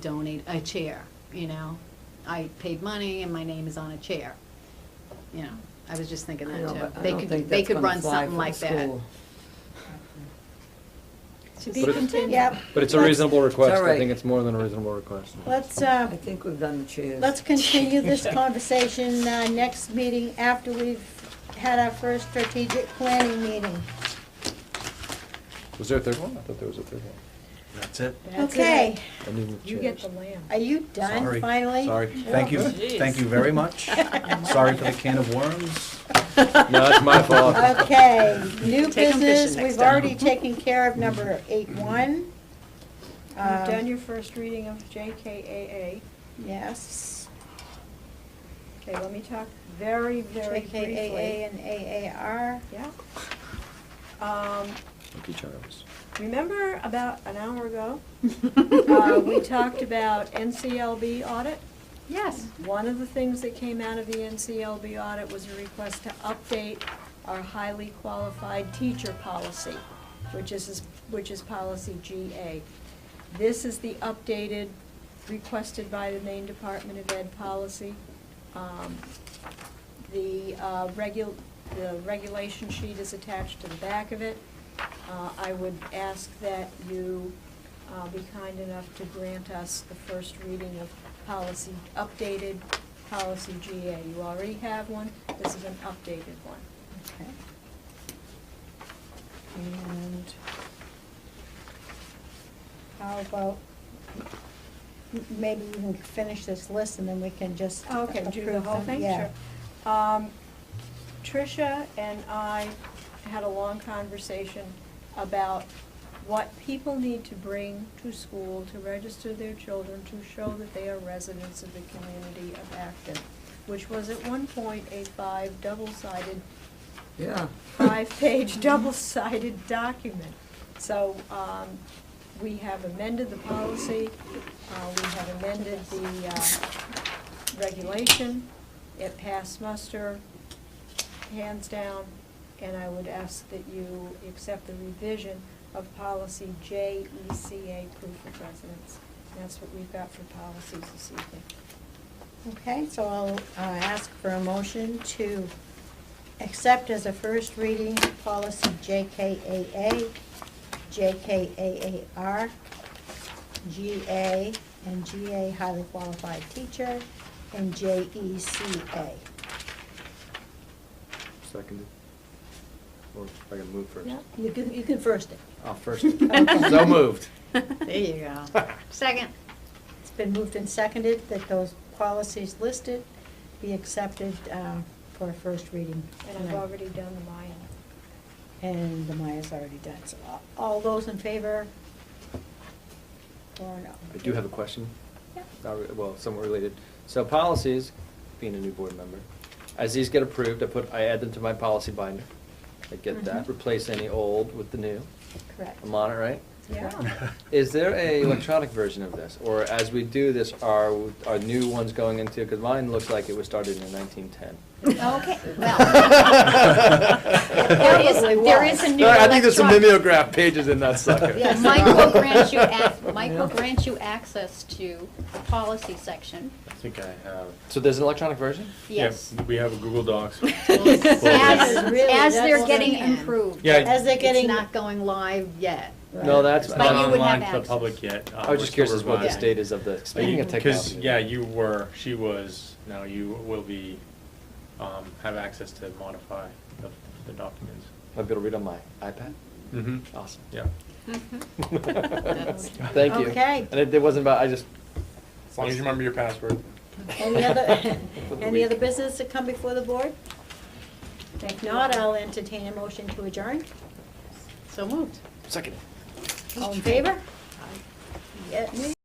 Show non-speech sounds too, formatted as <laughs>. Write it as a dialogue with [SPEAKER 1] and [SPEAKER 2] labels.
[SPEAKER 1] donate a chair, you know? I paid money and my name is on a chair, you know? I was just thinking
[SPEAKER 2] I
[SPEAKER 1] that
[SPEAKER 2] know,
[SPEAKER 1] too.
[SPEAKER 2] but I
[SPEAKER 1] They
[SPEAKER 2] don't
[SPEAKER 1] could,
[SPEAKER 2] think
[SPEAKER 1] they
[SPEAKER 2] that's
[SPEAKER 1] could
[SPEAKER 2] gonna
[SPEAKER 1] run
[SPEAKER 2] fly
[SPEAKER 1] something
[SPEAKER 2] for
[SPEAKER 1] like
[SPEAKER 2] the
[SPEAKER 1] that.
[SPEAKER 2] school.
[SPEAKER 3] To be
[SPEAKER 4] But it-
[SPEAKER 3] continued.
[SPEAKER 5] Yep.
[SPEAKER 4] But it's a reasonable request.
[SPEAKER 2] all right.
[SPEAKER 4] I think it's more than a reasonable request.
[SPEAKER 5] Let's,
[SPEAKER 2] I
[SPEAKER 5] uh,
[SPEAKER 2] think we've done the chairs.
[SPEAKER 5] let's continue this conversation, uh, next meeting after we've had our first strategic planning meeting.
[SPEAKER 4] Was there a third one? I thought there was a third one.
[SPEAKER 6] That's it.
[SPEAKER 3] That's it.
[SPEAKER 5] Okay,
[SPEAKER 4] I need the
[SPEAKER 3] You get the
[SPEAKER 4] chairs.
[SPEAKER 3] lamb.
[SPEAKER 5] are you done
[SPEAKER 6] Sorry.
[SPEAKER 5] finally? Oh.
[SPEAKER 6] Sorry. Thank you,
[SPEAKER 1] Oh,
[SPEAKER 3] Jeez.
[SPEAKER 6] thank you very
[SPEAKER 1] <laughs>
[SPEAKER 6] much. Sorry for the can of worms.
[SPEAKER 4] No,
[SPEAKER 1] <laughs>
[SPEAKER 4] it's my fault.
[SPEAKER 5] Okay,
[SPEAKER 1] Take
[SPEAKER 5] new
[SPEAKER 1] 'em fishing
[SPEAKER 5] business,
[SPEAKER 1] next
[SPEAKER 5] we've
[SPEAKER 1] time.
[SPEAKER 5] already taken care of number eight one. um,
[SPEAKER 3] You've done your first reading of JKAA.
[SPEAKER 5] Yes,
[SPEAKER 3] Okay, let me talk very, very briefly.
[SPEAKER 5] JKAA and AAR.
[SPEAKER 3] Yeah. Um,
[SPEAKER 4] Thank you, Charles.
[SPEAKER 3] remember about an hour ago,
[SPEAKER 1] <laughs>
[SPEAKER 3] uh, we talked about NCLB audit?
[SPEAKER 1] Yes.
[SPEAKER 3] One of the things that came out of the NCLB audit was a request to update our highly qualified teacher policy, which is, which is policy GA. This is the updated, requested by the Maine Department of Ed policy. Um, The uh, regu, the regulation sheet is attached to the back of it. Uh, I would ask that you uh, be kind enough to grant us the first reading of policy, updated policy GA. You already have one, this is an updated one.
[SPEAKER 5] Okay. And how about, m- maybe we can finish this list and then we can just approve
[SPEAKER 3] Oh, Okay, do the whole
[SPEAKER 5] them.
[SPEAKER 3] thing?
[SPEAKER 5] Yeah.
[SPEAKER 3] Sure. Um, Tricia and I had a long conversation about what people need to bring to school to register their children to show that they are residents of the community of Acton, which was at one point a five double-sided
[SPEAKER 2] Yeah. <laughs>
[SPEAKER 3] five-page, <laughs> double-sided document. So um, we have amended the policy, uh, we have amended the uh, regulation, it passed muster, hands down, and I would ask that you accept the revision of policy JECA, proof of residence. That's what we've got for policies this evening.
[SPEAKER 5] Okay, so I'll uh, ask for a motion to accept as a first reading policy JKAA, JKAAR, GA, and GA highly qualified teacher, and E JECA.
[SPEAKER 4] Seconded. Or if I can move first.
[SPEAKER 3] Yeah.
[SPEAKER 5] You can, you can first it.
[SPEAKER 3] <laughs>
[SPEAKER 4] Oh, first.
[SPEAKER 5] <laughs> Okay.
[SPEAKER 4] So moved.
[SPEAKER 1] There you
[SPEAKER 4] <laughs>
[SPEAKER 1] go. Second.
[SPEAKER 5] It's been moved and seconded that those policies listed be accepted uh, for a first reading.
[SPEAKER 3] And I've
[SPEAKER 5] tonight.
[SPEAKER 3] already done the Maya.
[SPEAKER 5] And the Maya's already done, so all- all those in favor? Or no?
[SPEAKER 4] I do have a question.
[SPEAKER 5] Yeah.
[SPEAKER 4] Not re- Well, somewhat related. So policies, being a new board member, as these get approved, I put, I add them to my policy binder. I get that,
[SPEAKER 1] Mhm.
[SPEAKER 4] replace any old with the new.
[SPEAKER 5] Correct.
[SPEAKER 4] I'm on it, right?
[SPEAKER 3] Yeah.
[SPEAKER 4] Is there a electronic version of this, or as we do this, are, are new ones going into, because mine looks like it was started in nineteen ten.
[SPEAKER 1] Okay, There is, there is a new
[SPEAKER 4] I think there's some
[SPEAKER 1] electronic-
[SPEAKER 4] mimeograph pages in that sucker.
[SPEAKER 5] Yes.
[SPEAKER 1] Mike will grant you,
[SPEAKER 5] <laughs>
[SPEAKER 1] ac- Mike will
[SPEAKER 2] <laughs> Yeah.
[SPEAKER 1] grant you access to the policy section,
[SPEAKER 7] I think I have.
[SPEAKER 4] So there's an electronic version?
[SPEAKER 1] yes.
[SPEAKER 7] Yeah, We have a Google Docs.
[SPEAKER 1] <laughs> As,
[SPEAKER 5] Yes, really,
[SPEAKER 1] as they're
[SPEAKER 5] that's-
[SPEAKER 1] getting improved.
[SPEAKER 7] Yeah.
[SPEAKER 5] As they're
[SPEAKER 1] It's
[SPEAKER 5] getting.
[SPEAKER 1] not going live yet.
[SPEAKER 4] No, that's,
[SPEAKER 7] It's
[SPEAKER 1] But
[SPEAKER 7] not
[SPEAKER 1] you would
[SPEAKER 4] I
[SPEAKER 7] online
[SPEAKER 1] have
[SPEAKER 7] to the
[SPEAKER 1] access.
[SPEAKER 7] public yet. Uh,
[SPEAKER 4] was just curious as what the
[SPEAKER 1] revising.
[SPEAKER 4] state is of the, speaking of
[SPEAKER 7] Because,
[SPEAKER 4] technology.
[SPEAKER 7] yeah, you were, she was, now you will be, um, have access to modify the, the documents.
[SPEAKER 4] Might be able to read on my iPad?
[SPEAKER 7] Mm-hmm.
[SPEAKER 4] Awesome.
[SPEAKER 7] Yeah.
[SPEAKER 1] Mm-hmm. That's-
[SPEAKER 4] <laughs> Thank you.
[SPEAKER 5] Okay.
[SPEAKER 4] And it, it wasn't about, I just.
[SPEAKER 7] As long as you remember your password.
[SPEAKER 5] Any other,
[SPEAKER 4] <laughs> For the
[SPEAKER 5] <laughs> any
[SPEAKER 4] week.
[SPEAKER 5] other business that come before the board? If not, I'll entertain a motion to adjourn.
[SPEAKER 1] So moved.
[SPEAKER 4] Second.
[SPEAKER 5] All in favor? Yeah, me?